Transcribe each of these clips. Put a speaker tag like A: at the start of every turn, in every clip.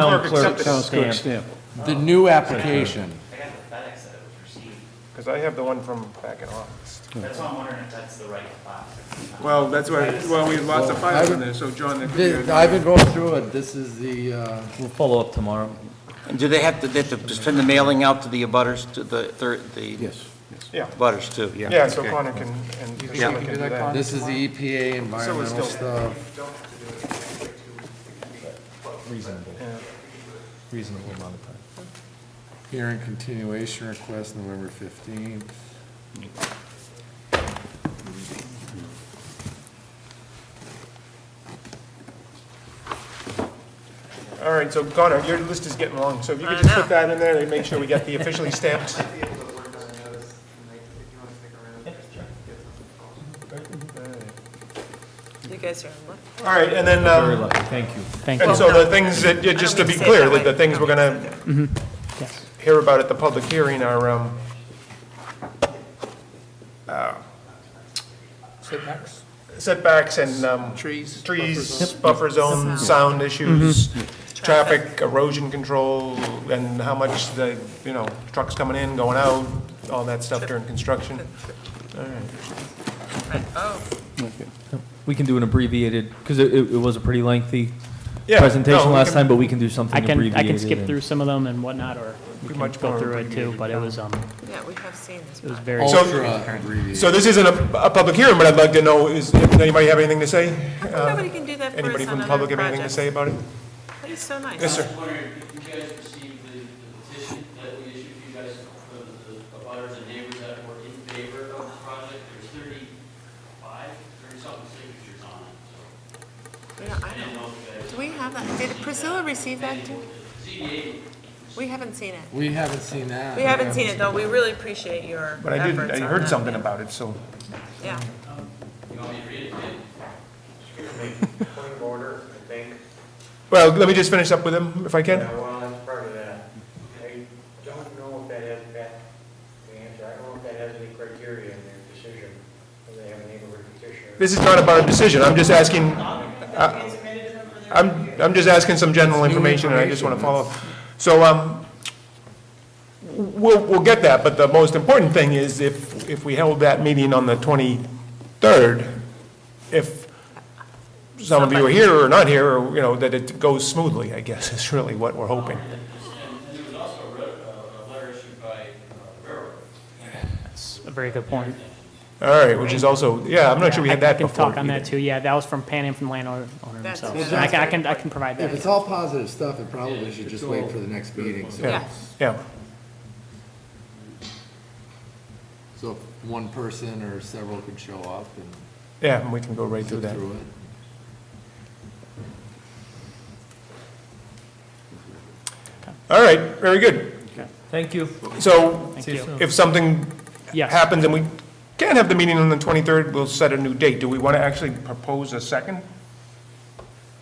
A: clerk,
B: Except
A: town
B: it's
A: clerk
B: stamped.
A: stamp.
C: The new application.
D: I got the FedEx that it was received.
B: Because I have the one from back in August.
D: That's why I'm wondering if that's the right file.
E: Well, that's why, well, we have lots of files in there, so John, that could be
C: Th-
E: a-
C: I've been going through it, this is the, uh,
F: We'll follow up tomorrow.
G: And do they have to, they have to send the mailing out to the abutters, to the, thir- the
A: Yes, yes.
B: Yeah,
G: abutters too? Yeah.
B: yeah, so
G: Okay.
B: Connor can, and
G: Yeah.
B: Priscilla can do that.
C: this is the EPA environmental stuff.
F: Reasonable. Reasonable amount of time.
C: Hearing continuation request, November 15th.
B: All right, so Connor, your list is getting long, so if you
H: I
B: could just
H: know.
B: put that in there and make sure we get the officially stamped.
I: be able to work on those, like, if you want to stick around, just try to get something called.
H: You guys are in luck.
B: All right, and then,
F: Very
B: um,
F: lucky, thank you, thank you.
B: and so the things that, yeah, just to be clear, that the things we're gonna hear about at the public hearing are, um, uh,
E: setbacks,
B: setbacks and, um,
E: trees.
B: trees, buffer zones, sound issues, traffic, erosion control, and how much the, you know, trucks coming in, going out, all that stuff during construction.
H: Right. Oh,
F: We can do an abbreviated, because it, it it was a pretty lengthy
B: Yeah, no,
F: presentation
B: we
F: last
B: can-
F: time, but we can do something
J: I
F: abbreviated.
J: can, I can skip
F: and-
J: through some of them and whatnot, or we
B: Pretty
J: can
B: much
J: go
B: more
J: through it too,
B: abbreviated, Oh.
J: but it was, um,
H: yeah, we have seen this.
J: it was
B: uh,
H: before.
J: very.
C: Ultra abbreviated.
B: So this isn't a, a public hearing, but I'd like to know, is, if anybody have anything to say?
H: How come
B: Uh,
H: Nobody can do that for us on
B: Anybody from the
H: other
B: public have anything to
H: projects?
B: say about it?
H: That is so nice.
B: Yes, sir.
D: I was wondering if you guys received the the petition that we issued to you guys for the the abutters and neighbors that were in favor of the project. There's 35, 30-something signatures on it, so
H: We don't- I
D: I didn't
H: don't-
D: know if you guys...
H: Do we have that? Did Priscilla receive that too?
D: ZBA
H: We haven't seen it.
C: We haven't seen that.
H: We haven't seen it, though. We really appreciate your efforts
B: But I did, I
H: on
B: heard
H: that.
B: something about it, so.
H: Yeah.
I: Point of order, I think,
B: Well, let me just finish up with him, if I
I: you
B: can.
I: know, well, that's part of that. I don't know if that has that, the answer, I don't know if that has any criteria in their decision, whether they have a neighborhood petition. or-
B: This is not about a decision, I'm just asking, uh, I'm, I'm just asking some general information, and I just want to follow. up. So, um, we'll, we'll get that, but the most important thing is if, if we held that meeting on the 23rd, if some of you are here or not here, or, you know, that it goes smoothly, I guess, is really what we're hoping.
D: And there was also a re- a a letter issued by uh, the railroad.
J: It's a very good point.
B: All right, which is also, yeah, I'm not sure we
J: I-
B: had that
J: I can
B: before.
J: talk on that too, yeah, that was from Pan Am from the landowner owner
H: That's-
J: himself. And I can, I can, I can provide
C: If it's
J: that.
C: all positive stuff, it probably should just wait for the next meeting, so.
H: Yeah.
B: Yeah,
C: So if one person or several could show up and
B: yeah, and we can go right through
C: sit
B: that.
C: through it.
B: All right, very good.
F: Thank you.
B: So
J: Thank you.
B: if something
J: Yes.
B: happens and we can't have the meeting on the 23rd, we'll set a new date. Do we want to actually propose a second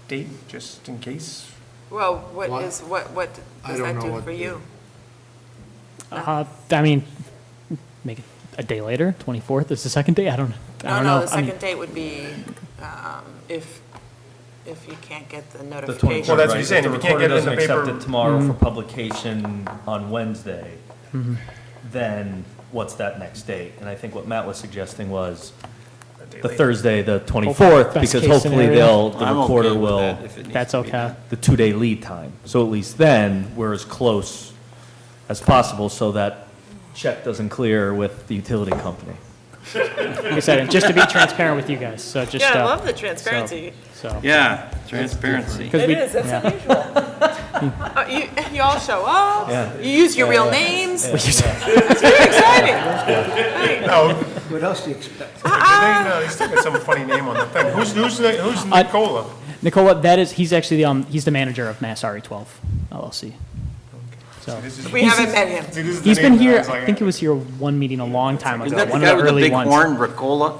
B: date, just in case?
H: Well,
C: What?
H: what is, what, what
C: I
H: does
C: don't
H: that
C: know
H: do
C: what
H: for
C: the-
H: you?
J: Uh, I mean, make it a day later, 24th is the second day, I don't, I
H: No,
J: don't
H: Oh, no,
J: know.
H: the
J: I mean,
H: second date would be um, if, if you can't get the
F: The
H: notification.
F: 23rd,
B: Well, that's what
F: right,
B: he's saying,
F: if
B: if you can't get it in
F: recorder
B: the
F: doesn't
B: paper- Mm-hmm.
F: accept it tomorrow for publication on Wednesday, then what's that next date? And I think what Matt was suggesting was
B: A day
F: the
B: later?
F: Thursday, the 24th,
J: Best
F: because
J: case
F: hopefully
J: scenario.
F: they'll, the
G: I'm okay
F: recorder
G: with
F: will,
G: that if it needs
J: That's
G: to be
J: okay.
F: the two-day lead time. So at least then, we're as close as possible so that check doesn't clear with the utility company.
J: Like I said, and just to be transparent with you guys, so just.
H: Yeah, I
J: uh,
H: love the
J: so-
H: transparency.
J: So.
G: Yeah, transparency.
J: 'cause
H: It
J: we-
H: is, that's
J: yeah.
H: unusual. Uh, You, you all show
F: Yeah.
H: up, you use your real names. It's very exciting. Right.
B: No,
A: What else do you expect?
B: they- no, they still got some funny name on the thing. Who's, who's, the- who's
J: I-
B: Nicola?
J: Nicola, that is, he's actually, the, um, he's the manager of Mass RE twelve LLC. So,
B: This is-
H: We haven't met him.
B: see, this is the
J: he's been
B: name that
J: here,
B: was like,
J: I think he was here one meeting a long time
G: Isn't
J: ago,
G: that the
J: one
G: guy
J: of the
G: with the
J: early
G: big
J: ones.
G: horn, Ricola?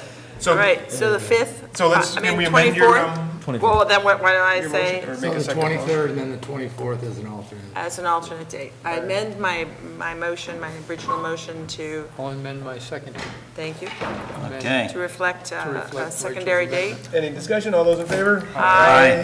H: All
B: So,
H: right, so the 5th?
B: so let's,
H: I mean,
B: can we amend your,
H: 24th?
B: um,
F: 24th.
H: Well, then what, why don't I
B: your
H: say
B: motion or
C: So
B: make a
C: the
B: second motion?
C: twenty-third and then the twenty-fourth as an alternate.
H: as an alternate date? I amend my, my motion, my original motion to,
I: I'll amend my second.
H: thank you,
G: Okay.
H: to reflect uh, a
I: reflect
H: secondary date.
B: Any discussion, all those in favor?
G: Aye.